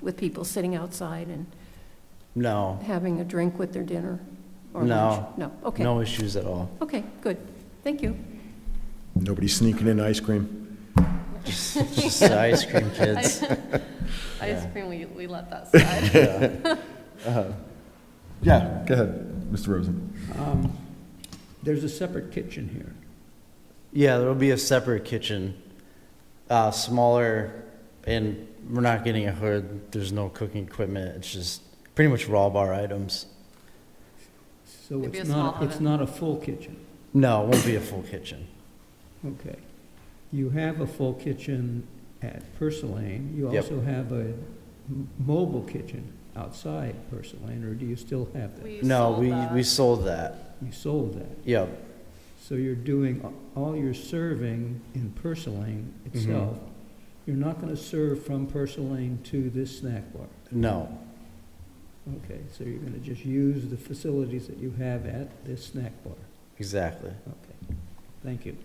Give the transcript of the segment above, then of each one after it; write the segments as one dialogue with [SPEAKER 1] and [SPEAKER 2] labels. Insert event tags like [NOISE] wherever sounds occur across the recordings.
[SPEAKER 1] with people sitting outside and
[SPEAKER 2] No,
[SPEAKER 1] having a drink with their dinner or
[SPEAKER 2] No.
[SPEAKER 1] lunch? No, okay,
[SPEAKER 2] no issues at all.
[SPEAKER 1] okay, good, thank you.
[SPEAKER 3] Nobody sneaking in ice cream.
[SPEAKER 2] Just the ice cream kids.
[SPEAKER 4] Ice cream, we, we let
[SPEAKER 2] [LAUGHS]
[SPEAKER 4] that slide.
[SPEAKER 3] Yeah, go ahead, Mr. Rosen.
[SPEAKER 5] Um, There's a separate kitchen here.
[SPEAKER 2] Yeah, there'll be a separate kitchen, uh, smaller, and we're not getting a hood. There's no cooking equipment. It's just pretty much raw bar items.
[SPEAKER 5] So
[SPEAKER 4] It'd be
[SPEAKER 5] it's
[SPEAKER 4] a
[SPEAKER 5] not,
[SPEAKER 4] small
[SPEAKER 5] it's
[SPEAKER 4] oven.
[SPEAKER 5] not a full kitchen.
[SPEAKER 2] No, it won't be a full kitchen.
[SPEAKER 5] Okay. You have a full kitchen at Purslane. You
[SPEAKER 2] Yep.
[SPEAKER 5] also have a m- mobile kitchen outside Purslane, or do you still have that?
[SPEAKER 4] We
[SPEAKER 2] No,
[SPEAKER 4] sold
[SPEAKER 2] we,
[SPEAKER 4] that.
[SPEAKER 2] we sold that.
[SPEAKER 5] You sold that.
[SPEAKER 2] Yep.
[SPEAKER 5] So you're doing a- all your serving in Purslane itself. You're not going to serve from Purslane to this snack bar.
[SPEAKER 2] No.
[SPEAKER 5] Okay, so you're going to just use the facilities that you have at this snack bar.
[SPEAKER 2] Exactly.
[SPEAKER 5] Okay, thank you.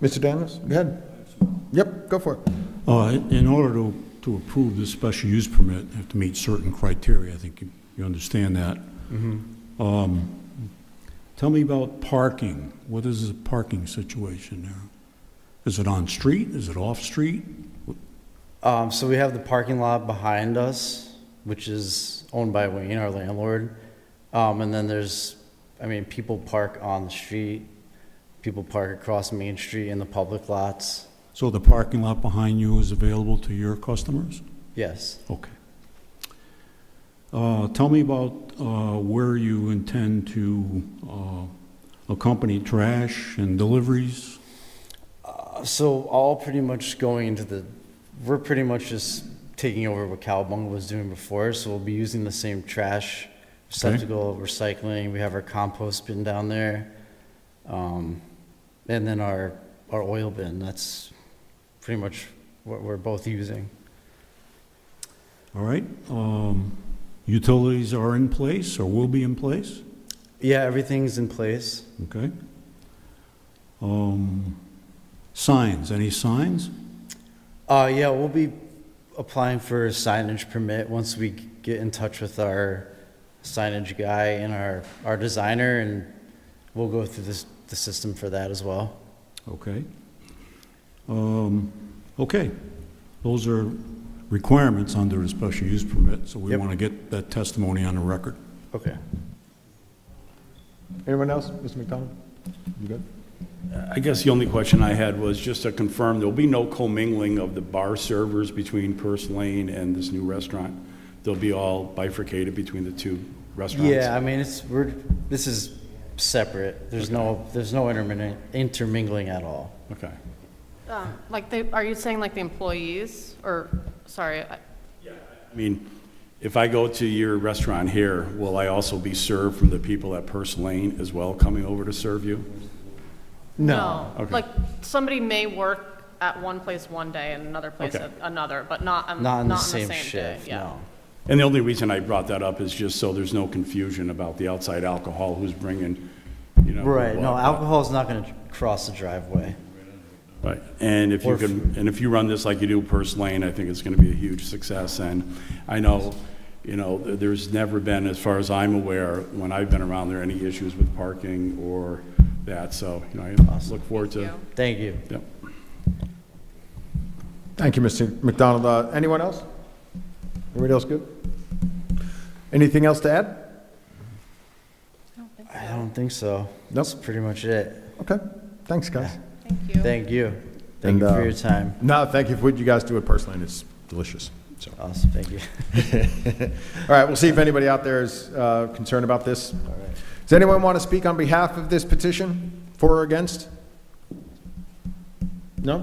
[SPEAKER 3] Mr. Daniels, go ahead. Yep, go for it.
[SPEAKER 6] Uh, In order to to approve this special use permit, you have to meet certain criteria. I think you- you understand that. Um, Tell me about parking. What is the parking situation there? Is it on-street? Is it off-street?
[SPEAKER 2] Um, so we have the parking lot behind us, which is owned by Wayne, our landlord. Um, and then there's, I mean, people park on the street, people park across Main Street in the public lots.
[SPEAKER 6] So the parking lot behind you is available to your customers?
[SPEAKER 2] Yes.
[SPEAKER 6] Okay. Uh, Tell me about uh, where you intend to uh, accompany trash and deliveries?
[SPEAKER 2] Uh, so all pretty much going into the, we're pretty much just taking over what Cowabunga was doing before. So we'll be using the same trash receptacle, recycling. We have our compost bin down there, um, and then our our oil bin. That's pretty much what we're both using.
[SPEAKER 6] All right, um, utilities are in place or will be in place,
[SPEAKER 2] Yeah, everything's in place.
[SPEAKER 6] okay? Um, signs, any signs?
[SPEAKER 2] Uh, yeah, we'll be applying for a signage permit once we get in touch with our signage guy and our, our designer, and we'll go through this, the system for that as well.
[SPEAKER 6] Okay. Um, okay, those are requirements under the special use permit, so we
[SPEAKER 2] Yep.
[SPEAKER 6] want to get that testimony on the record.
[SPEAKER 2] Okay.
[SPEAKER 3] Anyone else? Mr. McDonald? You good?
[SPEAKER 7] I guess the only question I had was just to confirm, there'll be no commingling of the bar servers between Purse Lane and this new restaurant? They'll be all bifurcated between the two restaurants?
[SPEAKER 2] Yeah, I mean, it's, we're, this is separate. There's no, there's no intermin- intermingling at all.
[SPEAKER 7] Okay.
[SPEAKER 4] Um, Like, they, are you saying like the employees, or, sorry, I-
[SPEAKER 7] I mean, if I go to your restaurant here, will I also be served from the people at Purse Lane as well coming over to serve you?
[SPEAKER 4] no.
[SPEAKER 7] Okay.
[SPEAKER 4] Like, somebody may work at one place one day and another place
[SPEAKER 7] Okay.
[SPEAKER 4] at another, but not,
[SPEAKER 2] Not
[SPEAKER 4] on- Mm, not
[SPEAKER 2] in
[SPEAKER 4] on
[SPEAKER 2] the
[SPEAKER 4] the
[SPEAKER 2] same
[SPEAKER 4] same day,
[SPEAKER 2] shift,
[SPEAKER 4] yeah.
[SPEAKER 2] no.
[SPEAKER 7] And the only reason I brought that up is just so there's no confusion about the outside alcohol, who's bringing, you know.
[SPEAKER 2] Right, no,
[SPEAKER 7] what.
[SPEAKER 2] alcohol's not gonna cross the driveway.
[SPEAKER 7] Right, and if
[SPEAKER 2] Or
[SPEAKER 7] you can, and if you run this like you do Purse Lane, I think it's gonna be a huge success, and I know, you know, th- there's never been, as far as I'm aware, when I've been around there, any issues with parking or that, so, you know, I look forward to.
[SPEAKER 4] you.
[SPEAKER 2] Thank you.
[SPEAKER 7] Yep.
[SPEAKER 3] Thank you, Mr. McDonald. Uh, Anyone else? Anybody else good? Anything else to add?
[SPEAKER 2] I don't think so. That's pretty much it.
[SPEAKER 3] Okay, thanks, guys.
[SPEAKER 4] Thank you.
[SPEAKER 2] Thank you.
[SPEAKER 3] And,
[SPEAKER 2] Thank you
[SPEAKER 3] uh,
[SPEAKER 2] for your time.
[SPEAKER 3] No, thank you for what you guys do at Purse Lane. It's delicious, so.
[SPEAKER 2] Awesome, thank you.
[SPEAKER 3] All right, we'll see if anybody out there is uh, concerned about this. Does anyone want to speak on behalf of this petition, for or against? No?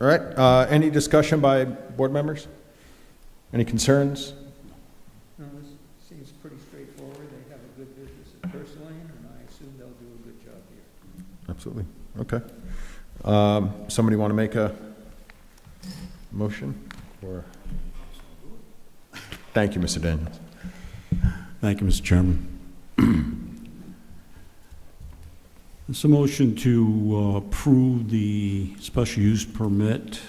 [SPEAKER 3] All right, uh, any discussion by board members? Any concerns?
[SPEAKER 5] No, this seems pretty straightforward. They have a good business at First Lane, and I assume they'll do a good job here.
[SPEAKER 3] Absolutely, okay. Um, Somebody want to make a motion? or- Thank you, Mr. Daniels.
[SPEAKER 6] Thank you, Mr. Chairman. It's a motion to uh, approve the special use permit